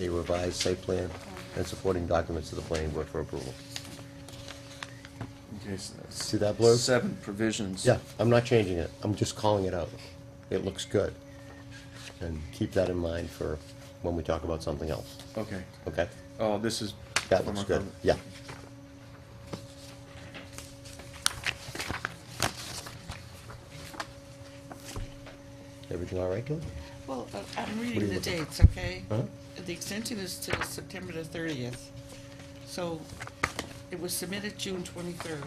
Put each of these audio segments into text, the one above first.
a revised site plan and supporting documents to the planning board for approval. Okay, so that's See that blurb? Seven provisions. Yeah, I'm not changing it, I'm just calling it out. It looks good. And keep that in mind for when we talk about something else, Okay. okay? Oh, this is. That looks good, yeah. Everything all right, Kelly? Well, uh, I'm you reading the looking dates, okay? Huh? The extension is to September the thirtieth. So it was submitted June twenty-third,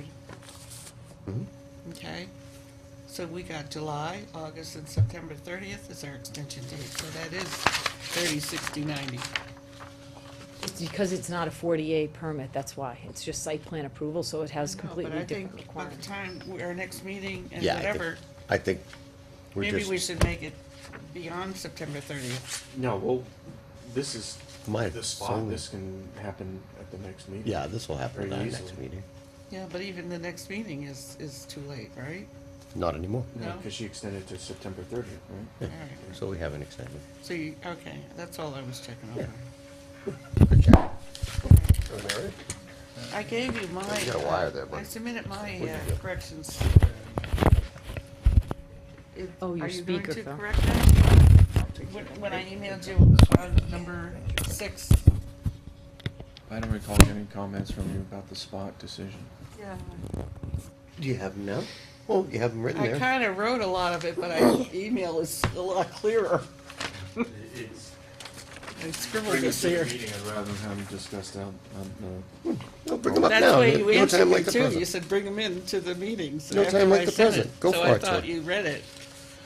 Mhm. okay? So we got July, August, and September thirtieth is our extension date, so that is thirty, sixty, ninety. It's because it's not a 48 permit, that's why. It's just site plan approval, so it has No, but completely I think different By the requirements. time, we- our next meeting and Yeah, I think- whatever, I think we're maybe we just, should make it beyond September thirtieth. No, well, this is My the song- spot. This can happen at the next meeting. yeah, this will happen at our Very next easily. meeting. Yeah, but even the next meeting is, is too late, right? Not anymore, No, No. because she extended to September thirtieth, right? All right. so we haven't extended. So you, okay, that's all I was checking over. I gave you my, got a wire uh, there, bud. I submitted my What'd you uh, do? corrections. It- Oh, your are you going speaker to fell. correct that? When, when I emailed you on number six, I don't recall any comments from you about the spot decision. yeah, Do you have them now? Well, you have them written I there. kinda wrote a lot of it, but I, email is a lot clearer. It's I scribbled this here. rather than having discussed out on the. No, bring them up That's now. the way No- you no answered time me like the too, present. you said bring them in to the meeting, so No after time like I the sent present. it, Go so for I it, thought Ted. you read it.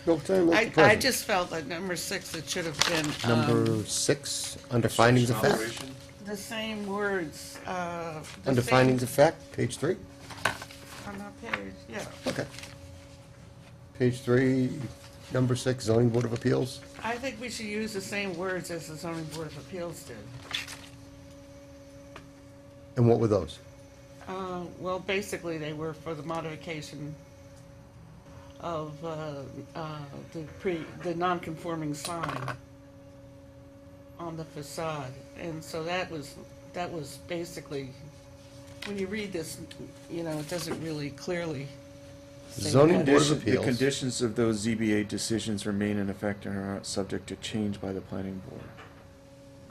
No time like I, the I present. just felt that number six, it should have been, um, Number six, under findings of fact. the same words, uh. the Under same- findings of fact, page three. On that page, yeah. Okay. Page three, number six, zoning board of appeals. I think we should use the same words as the zoning board of appeals did. And what were those? Uh, well, basically, they were for the modification of, uh, uh, the pre, the non-conforming sign on the facade, and so that was, that was basically, when you read this, you know, it doesn't really clearly. say Zoning what- board of Condition- The appeals. conditions of those ZBA decisions remain in effect and are not subject to change by the planning board.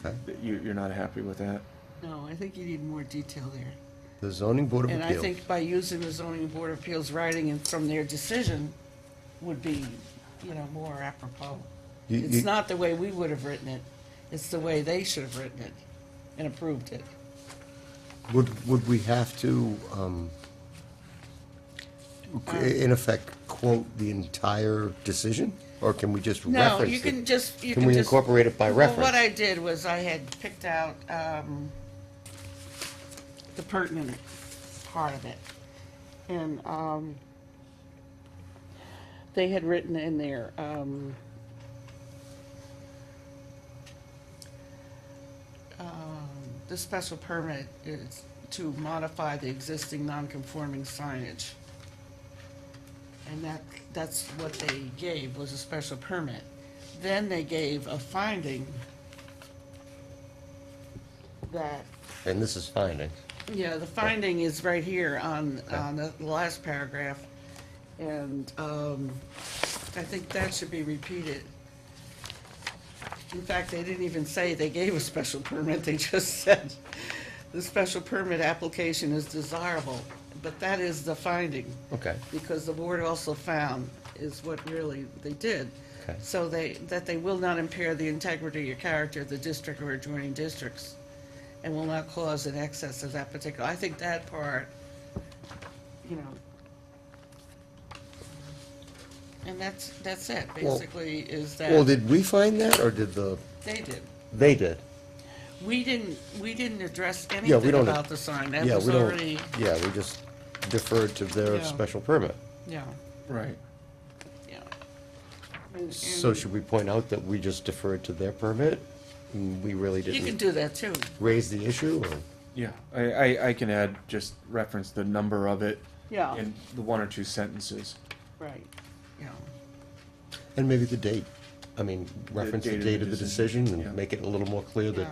Okay. That You, you're not happy with that? No, I think you need more detail there. The zoning board of And I appeals. think by using the zoning board of appeals writing and from their decision would be, you know, more apropos. You- It's you- not the way we would have written it, it's the way they should have written it and approved it. Would, would we have to, um, Um, qu- in effect, quote the entire decision? Or can we just reference No, you it? can just, you Can can we just- incorporate it by Well, reference? What I did was I had picked out, um, the pertinent part of it. And, um, they had written in there, um, um, the special permit is to modify the existing non-conforming signage. And that, that's what they gave, was a special permit. Then they gave a finding that, And this is eh? findings. yeah, the finding is right here on, on the last paragraph. And, um, I think that should be repeated. In fact, they didn't even say they gave a special permit, they just said, the special permit application is desirable, but that is the finding Okay. because the board also found is what really they did. Okay. So they, that they will not impair the integrity or character of the district or adjoining districts and will not cause an excess of that particular, I think that part, you know. And that's, that's it, Well- basically, is Well, that did we find that, or did the, they did. they did? We didn't, we didn't address Yeah, we anything don't- about the sign, that Yeah, was we don't- already, Yeah, we just deferred to their Yeah. special permit. yeah, Right. yeah. And- So and should we point out that we just deferred to their permit? and We really You can didn't do that too. raise the issue, or? Yeah, I, I, I can add, just reference the number of it. Yeah. In the one or two sentences. Right, yeah, And maybe the date. I mean, reference the date of the decision yeah. and make it a little more clear that Yeah.